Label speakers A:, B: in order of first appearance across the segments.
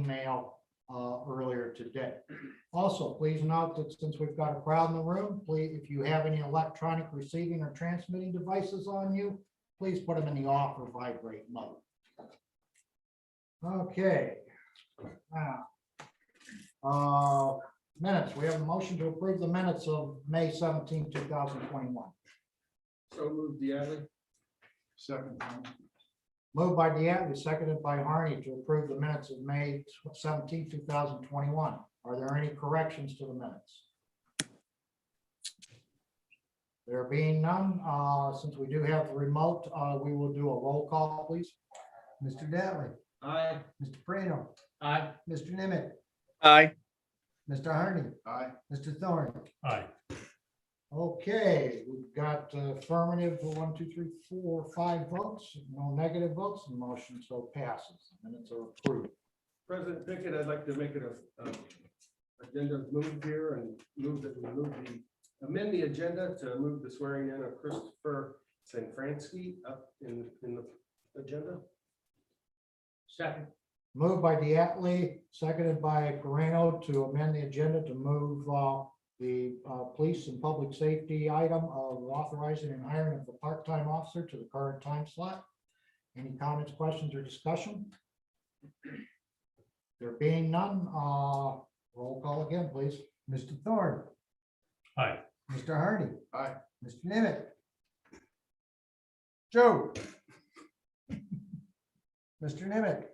A: email uh, earlier today. Also, please note that since we've got a crowd in the room, please, if you have any electronic receiving or transmitting devices on you, please put them in the off or vibrate mode. Okay. Now, uh, Minutes, we have a motion to approve the minutes of May 17, 2021.
B: So moved, Diatley. Second.
A: Moved by Deatley, seconded by Harney to approve the minutes of May 17, 2021. Are there any corrections to the minutes? There being none, uh, since we do have the remote, uh, we will do a roll call, please.
C: Mr. Dattley,
B: Aye.
C: Mr. Prano,
B: Aye.
C: Mr. Nimitz,
D: Aye.
C: Mr. Harney,
B: Aye.
C: Mr. Thorne.
E: Aye.
A: Okay, we've got affirmative, for one, two, three, four, five votes, no negative votes, and motion so passes. Minutes are approved.
B: President Pickett, I'd like to make it a, a agenda move here and move that we move the, amend the agenda to move the swearing in of Christopher Sanfransky up in, in the agenda. Second.
A: Moved by Diatley, seconded by Corino to amend the agenda to move uh, the uh, police and public safety item of authorizing and hiring of a part-time officer to the current time slot. Any comments, questions, or discussion? There being none, uh, roll call again, please.
C: Mr. Thorne.
E: Aye.
C: Mr. Harney.
B: Aye.
C: Mr. Nimitz. Joe. Mr. Nimitz,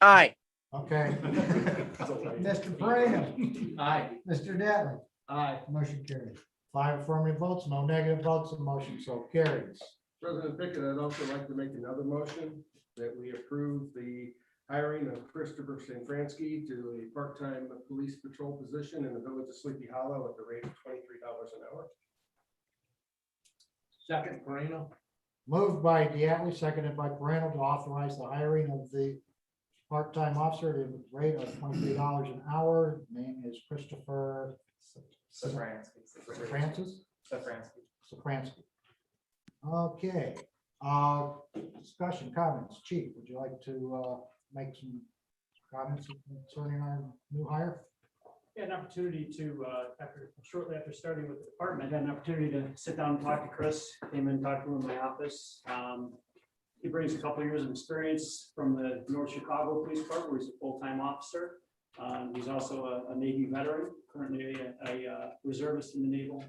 D: Aye.
A: Okay,
C: Mr. Prano,
B: Aye.
C: Mr. Dattley,
B: Aye.
C: motion carried.
A: five affirmative votes, no negative votes, and motion so carries.
B: President Pickett, I'd also like to make another motion that we approve the hiring of Christopher Sanfransky to a part-time police patrol position in the village of Sleepy Hollow at the rate of twenty-three dollars an hour. Second, Moreno.
A: Moved by Diatley, seconded by Morano to authorize the hiring of the part-time officer at a rate of twenty-three dollars an hour. Name is Christopher
F: Safransky.
A: Francis,
F: Safransky.
A: Sopransky. Okay, uh, discussion, comments, chief, would you like to, uh, make some comments concerning our new hire?
G: had an opportunity to, uh, after, shortly after starting with the department, I had an opportunity to sit down and talk to Chris, came in and talked to him in my office. Um, He brings a couple of years of experience from the North Chicago Police Department, where he's a full-time officer. Um, He's also a- a Navy veteran, currently a- a uh, reservist in the naval,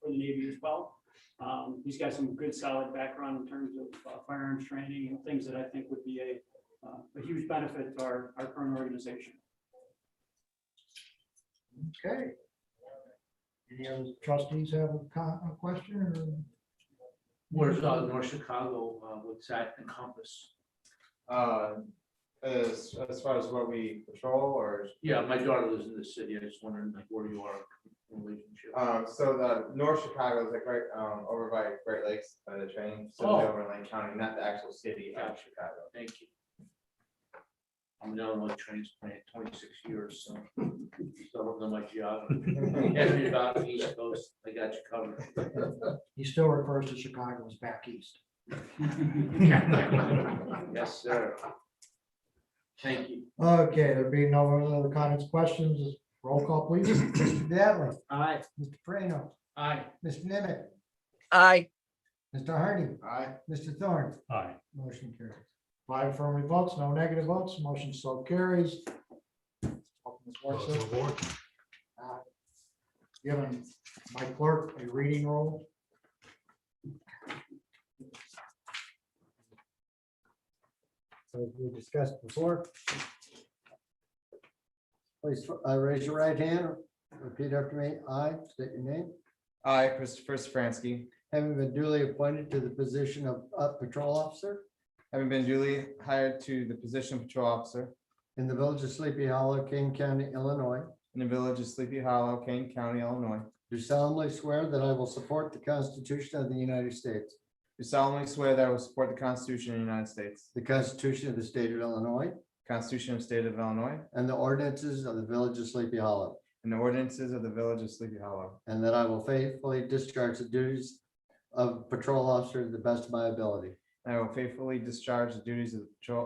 G: for the Navy as well. Um, He's got some good solid background in terms of uh, firearms training and things that I think would be a, uh, a huge benefit to our, our current organization.
A: Okay. Any other trustees have a con, a question or?
H: Where's uh, North Chicago, uh, what's that encompass?
F: Uh, As, as far as what we patrol or,
H: Yeah, my daughter lives in the city, I just wondering like where you are in relationship.
F: um, so the North Chicago is like right, um, over by Great Lakes by the train, so
H: Oh.
F: over in Lake County, not the actual city of Chicago.
H: Thank you. I'm an Illinois transplant, twenty-six years, so don't know my geography. Ask me about the East Coast, I got you covered.
A: He still refers to Chicago as back east.
H: Yes, sir. Thank you.
A: Okay, there being no other comments, questions, roll call please.
C: Mr. Dattley,
H: Aye.
C: Mr. Prano,
H: Aye.
C: Mr. Nimitz,
D: Aye.
C: Mr. Harney,
B: Aye.
C: Mr. Thorne,
E: Aye.
C: motion carried.
A: Five affirmative votes, no negative votes, motion so carries. Open this work
E: Close
A: session.
E: the board.
A: Given Uh, my clerk a reading roll.
C: as we discussed before. Please, uh, raise your right hand, repeat after me. I state your name.
F: I, Christopher Safransky,
C: Having been duly appointed to the position of uh, patrol officer
F: having been duly hired to the position of patrol officer
C: in the village of Sleepy Hollow, King County, Illinois,
F: in the village of Sleepy Hollow, Kane County, Illinois,
C: do solemnly swear that I will support the Constitution of the United States,
F: do solemnly swear that I will support the Constitution of the United States,
C: the Constitution of the State of Illinois,
F: Constitution of the State of Illinois,
C: and the ordinances of the village of Sleepy Hollow,
F: and the ordinances of the village of Sleepy Hollow,
C: and that I will faithfully discharge the duties of patrol officer to the best of my ability.
F: I will faithfully discharge the duties of the patrol